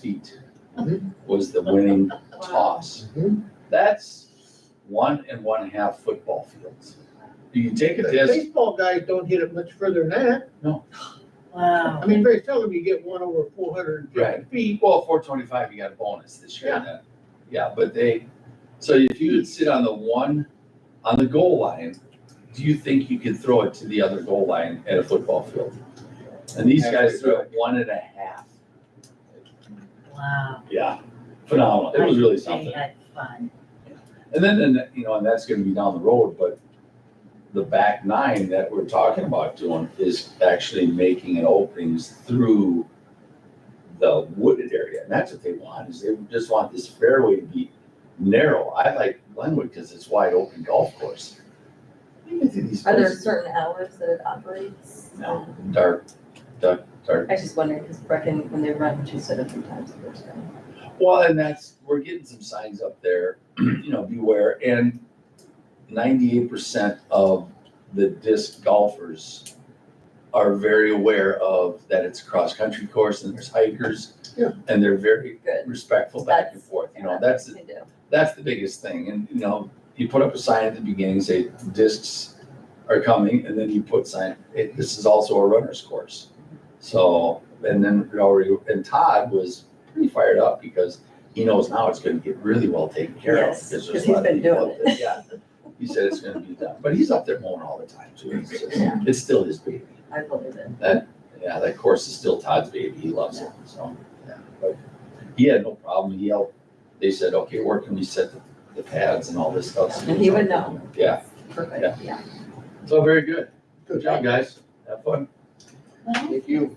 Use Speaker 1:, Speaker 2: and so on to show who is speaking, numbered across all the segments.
Speaker 1: feet
Speaker 2: Mhm.
Speaker 1: was the winning toss.
Speaker 2: Mhm.
Speaker 1: That's one and one half football fields. You can take a disc,
Speaker 2: Baseball guys don't hit it much further than that.
Speaker 3: Wow.
Speaker 2: I mean, very seldom you get one over four hundred and fifty
Speaker 1: Right.
Speaker 2: feet.
Speaker 1: well, four twenty-five, you got a bonus this year. then. Yeah, but they, so if you could sit on the one, on the goal line, do you think you could throw it to the other goal line at a football field? And these guys threw it one and a half.
Speaker 3: Wow.
Speaker 1: Yeah, phenomenal. It was really something.
Speaker 3: They had fun.
Speaker 1: And then, and, you know, and that's gonna be down the road, but the back nine that we're talking about doing is actually making an openings through the wooded area, and that's what they want, is they just want this fairway to be narrow. I like Glenwood because it's wide open golf course. You can see these
Speaker 4: Are there
Speaker 1: places,
Speaker 4: certain hours that it operates?
Speaker 1: No. dark, dark, dark.
Speaker 4: I was just wondering, because Brecken, when they run, she said a few times the first time.
Speaker 1: Well, and that's, we're getting some signs up there, you know, beware, and ninety-eight percent of the disc golfers are very aware of that it's a cross-country course and there's hikers.
Speaker 2: Yeah.
Speaker 1: And they're very
Speaker 4: Good.
Speaker 1: respectful back and
Speaker 4: That's-
Speaker 1: forth, you know, that's,
Speaker 4: They do.
Speaker 1: that's the biggest thing, and, you know, you put up a sign at the beginning, say discs are coming, and then you put sign, it, this is also a runner's course. So, and then we already, and Todd was pretty fired up because he knows now it's gonna get really well taken care of.
Speaker 4: Yes,
Speaker 1: there's
Speaker 4: 'cause
Speaker 1: a lot
Speaker 4: he's
Speaker 1: of
Speaker 4: been
Speaker 1: people
Speaker 4: doing
Speaker 1: up there. Yeah, he said it's gonna be done, but he's up there mowing all the time too, It's just-
Speaker 4: Yeah.
Speaker 1: it's still his baby.
Speaker 4: I believe it.
Speaker 1: Yeah, that course is still Todd's baby. He loves it. So, yeah. But he had no problem. He helped. They said, okay, where can we set the, the pads and all this stuff? So
Speaker 4: And he would know.
Speaker 1: Yeah.
Speaker 4: Perfect, yeah.
Speaker 1: So very good. Good job, guys. Have fun.
Speaker 2: Thank you.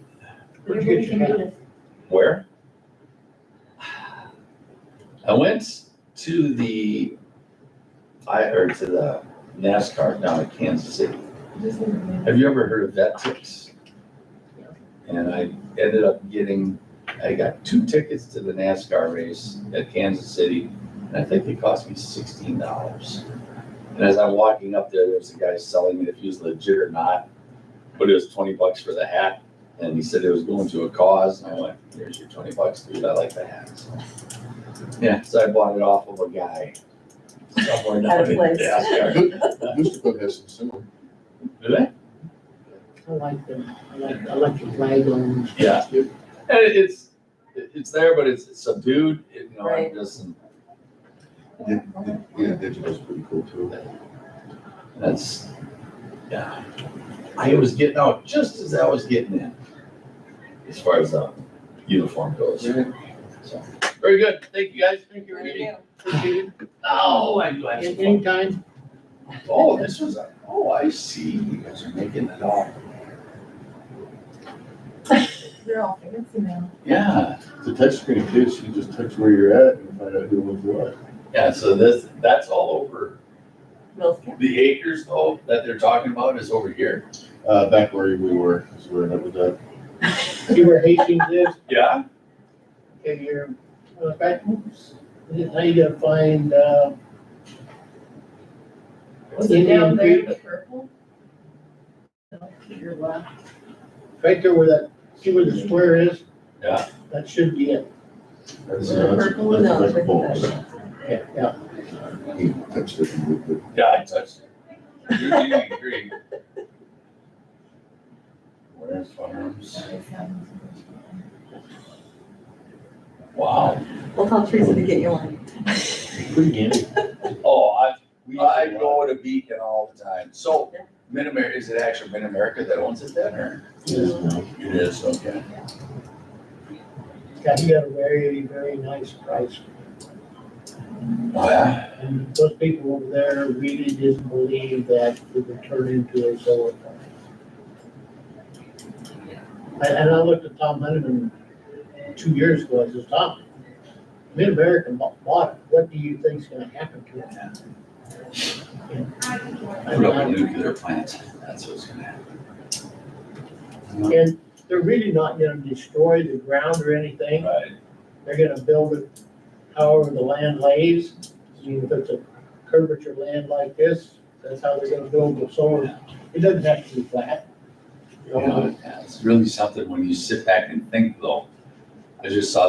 Speaker 2: Where'd you
Speaker 3: Maybe we
Speaker 2: get your
Speaker 3: can do
Speaker 2: hat?
Speaker 3: this.
Speaker 1: Where? I went to the, I heard to the NASCAR down in Kansas City. Have you ever heard of vet tips? And I ended up getting, I got two tickets to the NASCAR race at Kansas City, and I think they cost me sixteen dollars. And as I'm walking up there, there was a guy selling it, if he was legit or not, but it was twenty bucks for the hat, and he said it was going to a cause, and I went, here's your twenty bucks, dude, I like the hat, so. Yeah, so I bought it off of a guy somewhere
Speaker 4: At
Speaker 1: down
Speaker 4: a
Speaker 1: in
Speaker 4: place.
Speaker 1: NASCAR.
Speaker 5: Houston has some similar.
Speaker 1: Did I?
Speaker 2: I like them. I like, I like the flag on.
Speaker 1: Yeah. And it- it's, it- it's there, but it's it's subdued, it, you know, it
Speaker 4: Right.
Speaker 1: doesn't,
Speaker 5: Yeah, digital's pretty cool too.
Speaker 1: that's, yeah. I was getting out just as I was getting in, as far as, uh, uniform goes. So, Very good, thank you guys, thank you, Randy.
Speaker 2: Appreciate it.
Speaker 1: Oh, I do have
Speaker 2: And
Speaker 1: some.
Speaker 2: Anytime,
Speaker 1: Oh, this was, a- oh, I see, you guys are making it all,
Speaker 3: They're all fancy now.
Speaker 1: yeah,
Speaker 5: The touch screen too, so you just touch where you're at and find out who was what.
Speaker 1: yeah, so this, that's all over.
Speaker 4: Will's camp.
Speaker 1: The acres though, that they're talking about is over here.
Speaker 5: Uh, back where we were, is where that was at.
Speaker 2: you were Hastings is,
Speaker 1: Yeah.
Speaker 2: okay, you're uh, back. oops. Now you gotta find, uh,
Speaker 3: Was it down
Speaker 2: Indian
Speaker 3: there,
Speaker 2: Creek,
Speaker 3: the purple? No, To your left.
Speaker 2: Right there where that, see where the square is?
Speaker 1: Yeah.
Speaker 2: That should be it.
Speaker 5: That's,
Speaker 3: The
Speaker 5: uh, that's-
Speaker 3: purple
Speaker 5: that's
Speaker 4: No,
Speaker 5: like
Speaker 4: it's with
Speaker 5: bulbs.
Speaker 4: the-
Speaker 2: Yeah, yeah.
Speaker 5: He touched it and moved it.
Speaker 1: Yeah, I touched it. You do agree.
Speaker 5: Where's farms?
Speaker 1: Wow.
Speaker 4: We'll tell Teresa to get you one.
Speaker 5: Pretty handy.
Speaker 1: Oh, I,
Speaker 5: We used to
Speaker 1: I
Speaker 5: walk.
Speaker 1: go to Beacon all the time. So
Speaker 4: Yeah.
Speaker 1: Mid-America, is it actually Mid-America that owns it then or?
Speaker 5: Yes, no.
Speaker 1: It is, okay.
Speaker 2: God, you got a very, very nice price.
Speaker 1: Oh, yeah.
Speaker 2: And those people over there really didn't believe that it would turn into a solar farm. And, and I looked at Tom Lennon two years ago, I says, Tom, Mid-America bought bought it, what do you think's gonna happen to it?
Speaker 1: Put up a nuclear plant. That's what's gonna happen.
Speaker 2: And they're really not gonna destroy the ground or anything.
Speaker 1: Right.
Speaker 2: They're gonna build it however the land lays. I mean, if it's a curvature land like this, that's how they're gonna build the solar. It doesn't have to be flat. You know,
Speaker 1: Yeah, It's really something when you sit back and think though. I just saw that